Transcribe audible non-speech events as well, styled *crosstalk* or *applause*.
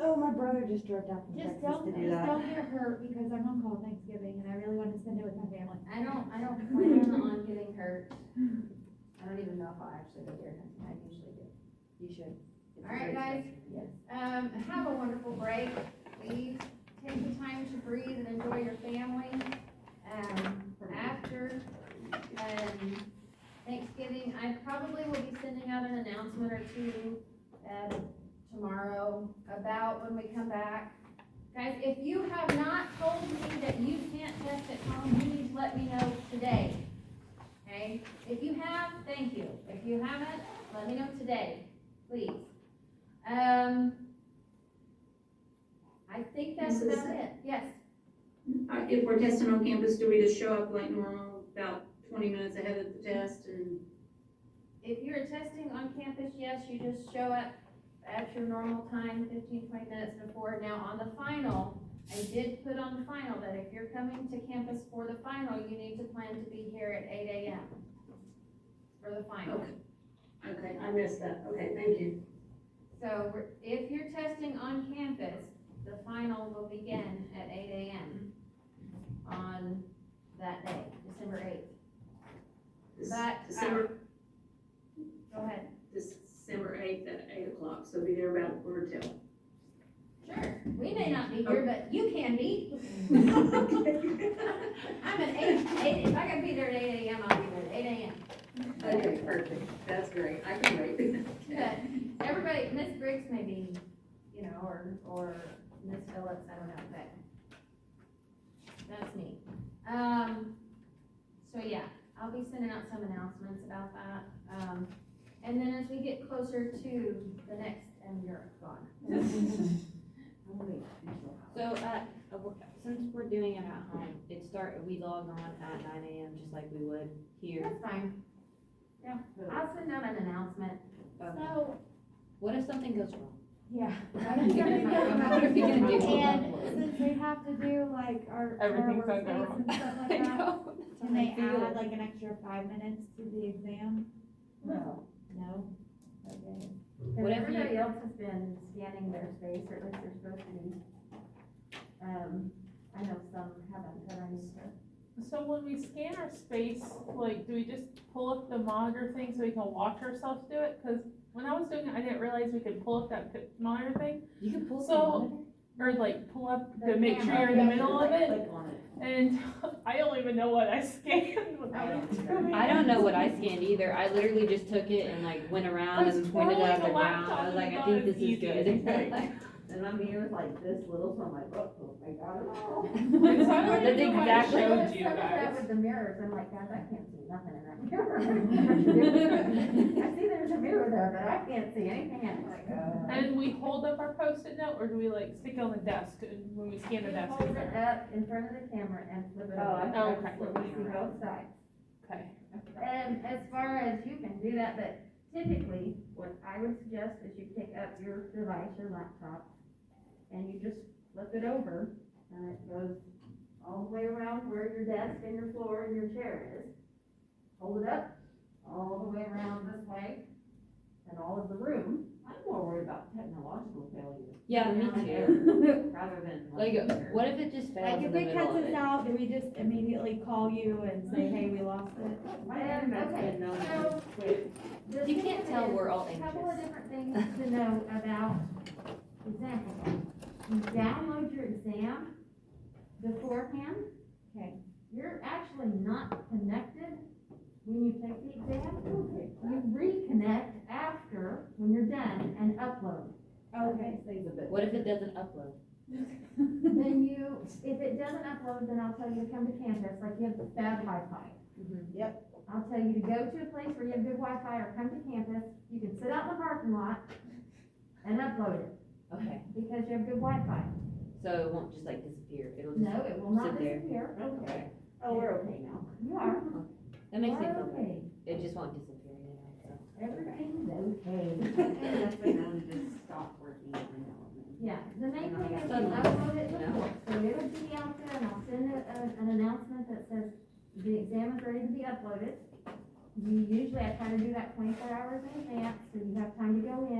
Oh, my brother just drove down from Just Texas don't, to do just *laughs* that. don't get hurt because I'm on call Thanksgiving and I really want to spend it with my family. I don't, I *laughs* don't plan on getting hurt. I don't even know if I'll actually go deer hunting, I usually do. You should. It's a All right, great guys. trip. Yes. Um, have a wonderful break. Please take the time to breathe and enjoy your family, um, after. um, Thanksgiving, I probably will be sending out an announcement or two, um, tomorrow about when we come back. Guys, if you have not told me that you can't test at home, you need to let me know today. Okay? If you have, thank you. If you haven't, let me know today, please. Um, I think that's Mrs. about it, yes. Uh, if we're testing on campus, do we just show up like normal, about twenty minutes ahead of the test and? If you're testing on campus, yes, you just show up at your normal time, 15, 20 minutes before. Now, on the final, I did put on the final that if you're coming to campus for the final, you need to plan to be here at eight AM for the final. Okay. Okay, I missed that. Okay, thank you. So we're- if you're testing on campus, the final will begin at eight AM on that day, December eighth. This- But, uh, December, Go ahead. December eighth at eight o'clock, so be there about a *laughs* quarter till. Sure, we may not be here, but you can be. *laughs* I'm at eight, eight, if I gotta be there at eight AM, I'll be there at eight AM. Okay, perfect. That's great. I can wait. But everybody, Miss Briggs may be, you know, or, or Miss Phillips, I don't know, but that's me. Um, so yeah, I'll be sending out some announcements about that. Um, and then as we get closer to the next, and you're gone. I'm gonna wait until- So, uh, uh, we're- since we're doing it at home, it start, we log on at nine AM just like we would here. That's fine. Yeah, I'll send out an announcement. Okay. So, Um, What if something goes wrong? *laughs* Yeah. What are we gonna do? And since they have to do like our, our Everything's gonna go workspace wrong. and stuff *laughs* *laughs* I like that, know. can they add like an extra five minutes to the exam? No. No? Okay. What if you- else has been scanning their space, or at least they're supposed to be. Um, I know some haven't, but I'm sure. So when we scan our space, like, do we just pull up the monitor thing so we can watch ourselves do it? Cause when I was doing it, I didn't realize we could pull up that pi- monitor thing, You can pull So- some. or like pull up The to make sure you're in the camera. middle of it. Click on it. And I don't even know what I scanned Oh, *laughs* when *laughs* I *laughs* was doing it. I don't know what I scanned either. I literally just took it and like went around and pointed twirling up the and down. laptop I was like, and I thought think it was this is easy. *laughs* good. And I'm here with like this little, so I'm like, oh, oh my god. It's not like That's I know what I exactly- showed you guys. with the mirrors, I'm like, guys, I can't see nothing in *laughs* that mirror. I see there's a mirror there, but I can't see anything in it. *laughs* And we hold up our post-it note, or do we like stick it on the desk and when we scan the desk? Hold it up in front of the camera and flip it Oh, I over. thought Okay. it was So we see looking around. both sides. Okay. And as far as you can do that, but typically, what I would suggest is you pick up your device, your laptop, and you just flip it over, and it goes all the way around where your desk and your floor and your chair is. Hold it up, all the way around this way, and all of the room. I'm more worried about technological failure. *laughs* Yeah, me Like, *laughs* too. Rather than. Like, what if it just fails Like, in if the it middle cuts of us it? out, do we just immediately call you and *laughs* say, hey, we lost it? My internet's Okay, been known so- to quit. The You can't thing tell is- we're all A couple of anxious. different things to know about exams. You download your exam beforehand. Okay. You're actually not connected when you take the exam. You reconnect after, when you're done, and upload. Okay. Oh, Things a bit. What if it doesn't upload? Then you, if it doesn't upload, then I'll tell you to come to campus, like you have bad Wi-Fi. Mhm. Yep. I'll tell you to go to a place where you have good Wi-Fi or come to campus. You can sit out in the parking lot and upload it Okay, because you have good Wi-Fi. so it won't just like disappear. It'll just. No, it will not Sit there. disappear. Okay. Oh, we're okay *laughs* now. You are. That You are makes me feel better. okay. It just won't disappear, you know, so. Everything's okay. *laughs* That's been known to just stop working every now and then. Yeah, the main thing is you Uh, Suddenly. upload it No. before, so it'll be out there and I'll send a, a- an announcement that says the exam is ready to be uploaded. You usually, I try to do that twenty-four hours in advance, so you have time to go in.